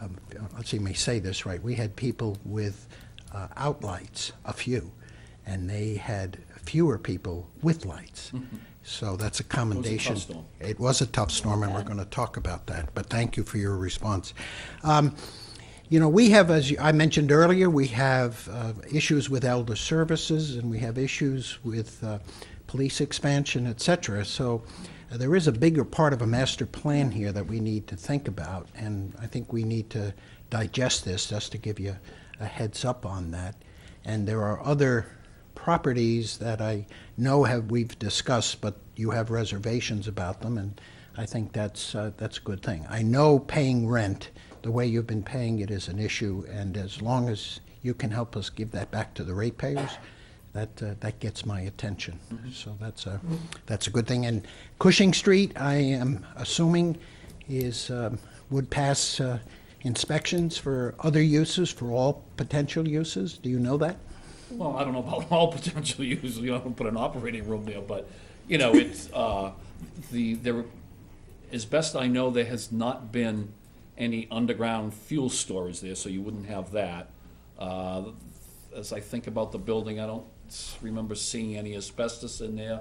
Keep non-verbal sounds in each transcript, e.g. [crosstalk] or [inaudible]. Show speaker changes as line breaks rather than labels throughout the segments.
um, let's see me say this right, we had people with uh, outlights, a few, and they had fewer people with lights. So that's a commendation.
storm.
It was a tough storm, and we're going to talk about that, but thank you for your response. Um, You know, we have, as you- I mentioned earlier, we have uh, issues with elder services, and we have issues with uh, police expansion, et cetera. So uh, there is a bigger part of a master plan here that we need to think about, and I think we need to digest this, just to give you a heads up on that. And there are other properties that I know have, we've discussed, but you have reservations about them, and I think that's, uh, that's a good thing. I know paying rent, the way you've been paying it is an issue, and as long as you can help us give that back to the ratepayers, that, uh, that gets my attention. So that's a, that's a good thing. And Cushing Street, I am assuming, is, um, would pass uh, inspections for other uses, for all potential uses? Do you know that?
Well, I don't know about [laughs] all potential uses, you know, I don't put an operating room there, but, you know, it's, uh, the, there, as best I know, there has not been any underground fuel storage there, so you wouldn't have that. Uh, as I think about the building, I don't s- remember seeing any asbestos in there.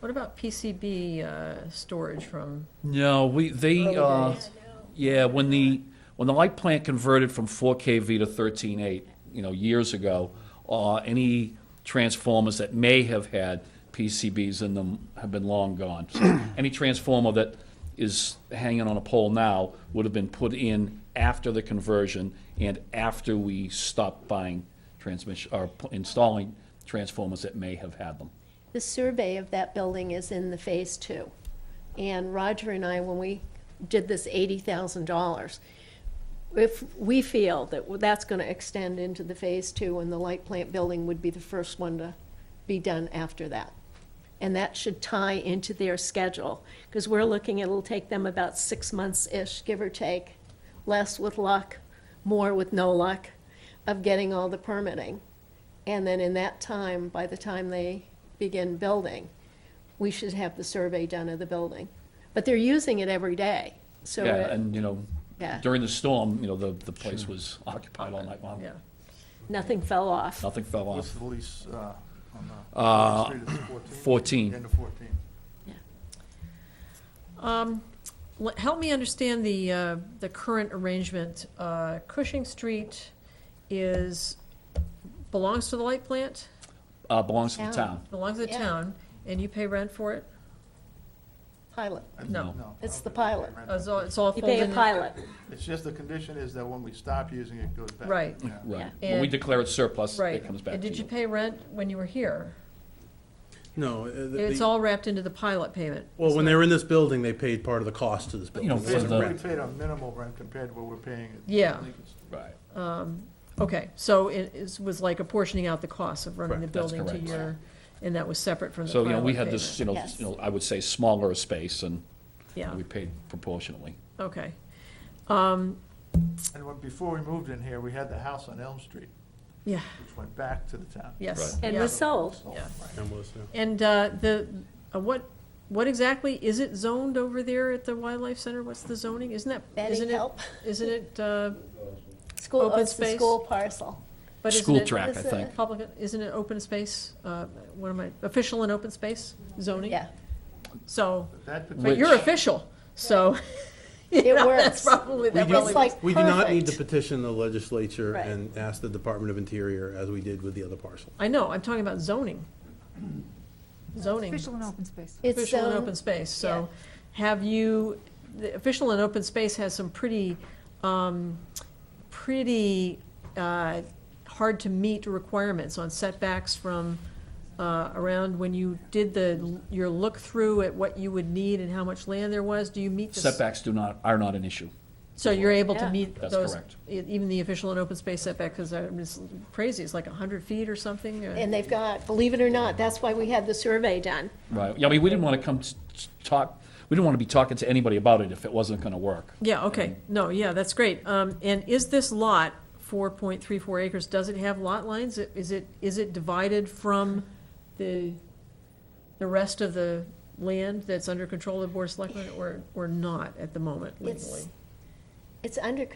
What about PCB uh, storage from,
No, we, they, uh,
days.
yeah, when the, when the light plant converted from four KV to thirteen eight, you know, years ago, uh, any transformers that may have had PCBs in them have been long gone. So Any transformer that is hanging on a pole now would have been put in after the conversion and after we stopped buying transmission, or p- installing transformers that may have had them.
The survey of that building is in the phase two. And Roger and I, when we did this eighty thousand dollars, if we feel that that's gonna extend into the phase two and the light plant building would be the first one to be done after that. And that should tie into their schedule, because we're looking, it'll take them about six months-ish, give or take, less with luck, more with no luck, of getting all the permitting. And then in that time, by the time they begin building, we should have the survey done of the building. But they're using it every day, so.
Yeah,
it-
and, you know,
Yeah.
during the storm, you know, the, the place was occupied all night long.
yeah,
Nothing fell off.
Nothing fell
What's
off.
the lease uh, on the street, it's 14?
14.
End of 14.
Let- help me understand the, uh, the current arrangement. Uh, Cushing Street is, belongs to the light plant,
Uh, belongs to the
Town.
town.
belongs to the
Yeah.
town, and you pay rent for it?
Pilot.
I-
No.
It's the
okay.
pilot.
Uh, It's all, it's all
You
folded
pay a
in?
pilot.
It's just the condition is that when we stop using it, it goes back.
Right.
Yeah.
Yeah.
Right. When we
And-
declare it surplus,
Right.
it comes back
And
to
did you
you.
pay rent when you were here?
No. uh, the-
It's
the-
all wrapped into the pilot payment.
Well, when they were in this building, they paid part of the cost to this
you
building.
know,
It wasn't
for the-
We
rent.
paid a minimal rent compared to what we're paying. at
Yeah.
Lincoln Street.
Right.
Okay, so it is- was like apportioning out the cost of running the
Correct, that's
building to
correct.
your, and that was separate from the
So,
pilot
you know, we had
payment.
this, you know,
Yes.
you know, I would say smaller space and
Yeah,
we paid proportionally.
okay.
And when, before we moved in here, we had the house on Elm Street,
Yeah,
which went back to the town.
yes.
And
yeah,
was sold.
yeah.
And was, yeah.
And uh, the, uh, what, what exactly, is it zoned over there at the Wildlife Center? What's the zoning? Isn't that,
Betty,
isn't it,
help.
isn't it, uh,
School,
Open
oh, it's the
space.
school parcel.
but isn't
School
it
track,
is
I
it-
think.
public, isn't it open space? Uh, What am I, official and open space zoning? [laughs]
Yeah.
So,
That
but
Which-
you're official, so. you know, [laughs] That's
works.
probably, that
do-
probably
It's like
We do not need to
perfect.
petition the legislature
Right.
and ask the Department of Interior as we did with the other parcel.
I know, I'm talking about zoning. Zoning,
Official and open space.
It's um,
official and
zoned.
open space, so have you, the official and open space has some pretty, um, pretty, uh, hard-to-meet requirements on setbacks from, uh, around when you did the, your look-through at what you would need and how much land there was, do you meet the? s-
Setbacks do not, are not an issue.
So you're able to
Yeah.
meet
That's
those,
correct.
e- even the official and open space setback, because it's crazy, it's like hundred feet or something, uh,
And they've got, believe it or not, that's why we had the survey done.
Right. Yeah, I mean, we didn't want to come s- s- talk, we didn't want to be talking to anybody about it if it wasn't going to work.
Yeah, okay, no, yeah, that's great. Um, and is this lot, four point three four acres, does it have lot lines? Is it, is it divided from the, the rest of the land that's under control of the Board of Selectmen, or, or not at the moment legally?
It's, it's under